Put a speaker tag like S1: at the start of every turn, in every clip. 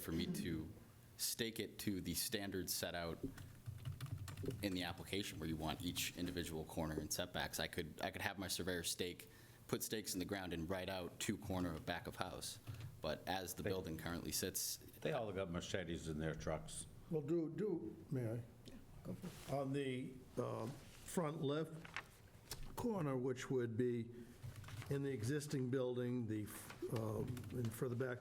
S1: for me to stake it to the standards set out in the application where you want each individual corner and setbacks. I could, I could have my surveyor stake, put stakes in the ground and write out two corner of back of house. But as the building currently sits,
S2: They all got machetes in their trucks.
S3: Well, do, do, may I? On the um, front left corner, which would be in the existing building, the, um, and further back,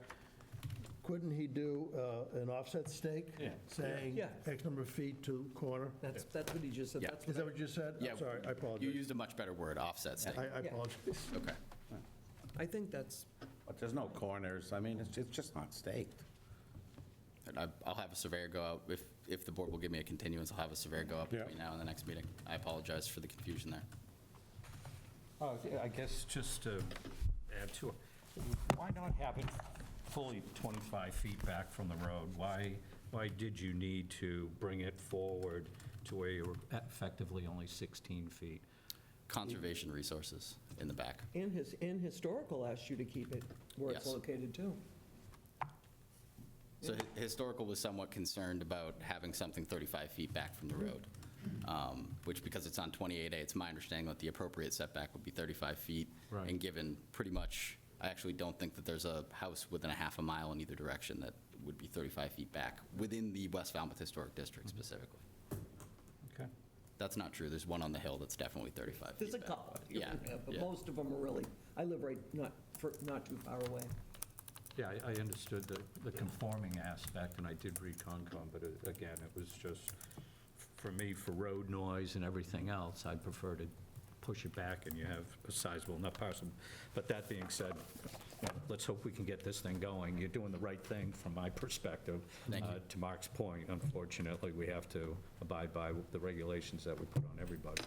S3: couldn't he do uh, an offset stake?
S2: Yeah.
S3: Saying
S4: Yeah.
S3: X number of feet to corner?
S4: That's, that's what he just said.
S1: Yeah.
S4: That's
S3: Is
S4: what
S3: that what you said?
S1: yeah.
S3: I'm sorry, I
S1: You
S3: apologize.
S1: used a much better word, offset stake.
S3: I I
S4: Yeah.
S3: apologize.
S1: Okay.
S4: I think that's,
S2: But there's no corners, I mean, it's, it's just not staked.
S1: And I- I'll have a surveyor go out, if, if the board will give me a continuance, I'll have a surveyor go out
S2: Yeah.
S1: between now and the next meeting. I apologize for the confusion there.
S5: Oh, I guess just to add to it, why not have it fully 25 feet back from the road? Why, why did you need to bring it forward to where you were effectively only 16 feet?
S1: Conservation resources in the back.
S4: and his, and historical asked you to keep it where it's
S1: Yes.
S4: located too.
S1: So hi- historical was somewhat concerned about having something 35 feet back from the road, um, which because it's on 28A, it's my understanding that the appropriate setback would be 35 feet.
S5: Right.
S1: And given pretty much, I actually don't think that there's a house within a half a mile in either direction that would be 35 feet back, within the West Falmouth Historic District
S2: Mm-hmm.
S1: specifically.
S5: Okay.
S1: That's not true. There's one on the hill that's definitely 35 feet
S4: There's a
S1: back.
S4: couple.
S1: Yeah,
S4: But
S1: yeah.
S4: most of them are really, I live right not, fur- not too far away.
S5: Yeah, I- I understood the, the conforming aspect, and I did read Concom, but it- again, it was just, for me, for road noise and everything else, I'd prefer to push it back and you have a sizable enough parcel. But that being said, let's hope we can get this thing going. You're doing the right thing from my perspective.
S1: Thank you.
S5: Uh, To Mark's point, unfortunately, we have to abide by the regulations that we put on everybody.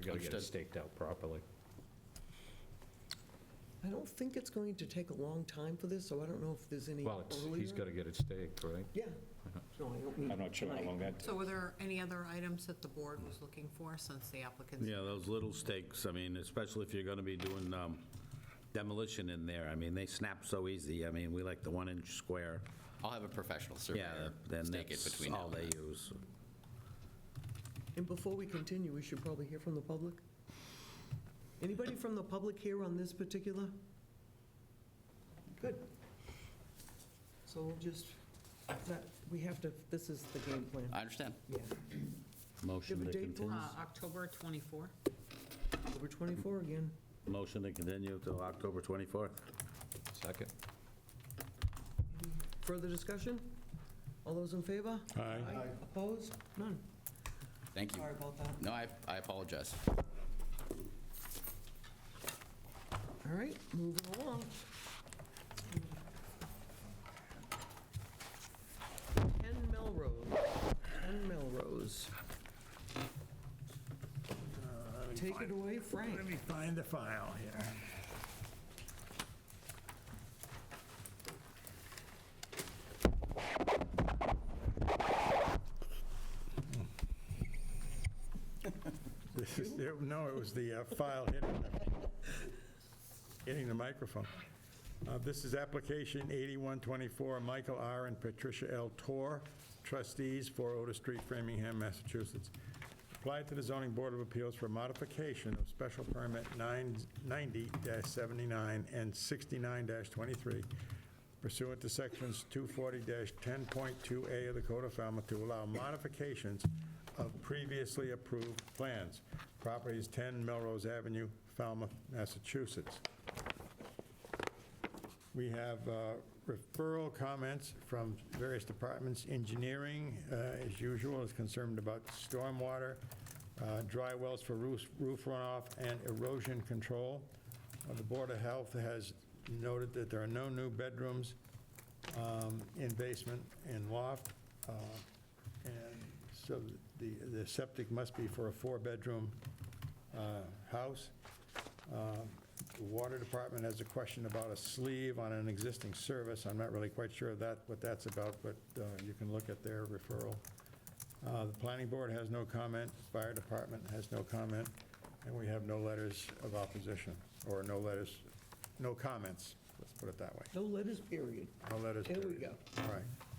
S5: We gotta get it
S1: Understood.
S5: staked out properly.
S4: I don't think it's going to take a long time for this, so I don't know if there's any
S5: Well, it's, he's
S4: earlier.
S5: gotta get it staked, right?
S4: Yeah. No, I don't mean.
S5: I'm not sure how
S4: tonight.
S5: long that takes.
S6: So were there any other items that the board was looking for since the applicants?
S2: Yeah, those little stakes, I mean, especially if you're going to be doing um, demolition in there, I mean, they snap so easy, I mean, we like the one-inch square.
S1: I'll have a professional
S2: Yeah,
S1: surveyor
S2: then
S1: stake it
S2: that's
S1: between now
S2: all
S1: and
S2: they
S1: then.
S2: use.
S4: And before we continue, we should probably hear from the public. Anybody from the public here on this particular? Good. So we'll just, that, we have to, this is the game plan.
S1: I understand.
S4: Yeah.
S2: Motion
S4: Give
S2: to
S4: a date for-
S2: continue,
S6: Uh, October 24?
S4: Over 24 again.
S2: motion to continue till October 24th.
S5: Second.
S4: Further discussion? All those in favor? Aye. Opposed? None.
S1: Thank you.
S4: Sorry about that.
S1: No, I I apologize.
S4: All right, moving along. Ken Melrose, Ken Melrose.
S7: Uh,
S4: Take it away, Frank.
S7: Let me find the file here. This is, no, it was the uh, file hitting, hitting the microphone. Uh, This is application 8124, Michael R. and Patricia L. Tor, trustees, 4 Otis Street, Framingham, Massachusetts. Applied to the zoning board of appeals for modification of special permit 90-79 and 69-23 pursuant to sections 240-10.2A of the Code of Falmouth to allow modifications of previously approved plans. Property is 10 Melrose Avenue, Falmouth, Massachusetts. We have uh, referral comments from various departments. Engineering, uh, as usual, is concerned about stormwater, uh, dry wells for roof roof runoff, and erosion control. Uh, The Board of Health has noted that there are no new bedrooms um, in basement and loft, uh, and so the the septic must be for a four-bedroom uh, house. Um, The Water Department has a question about a sleeve on an existing service. I'm not really quite sure of that, what that's about, but uh, you can look at their referral. Uh, The Planning Board has no comment, Fire Department has no comment, and we have no letters of opposition, or no letters, no comments, let's put it that way.
S4: No letters, period.
S7: No letters.
S4: There we
S7: period.
S4: go.
S7: All right.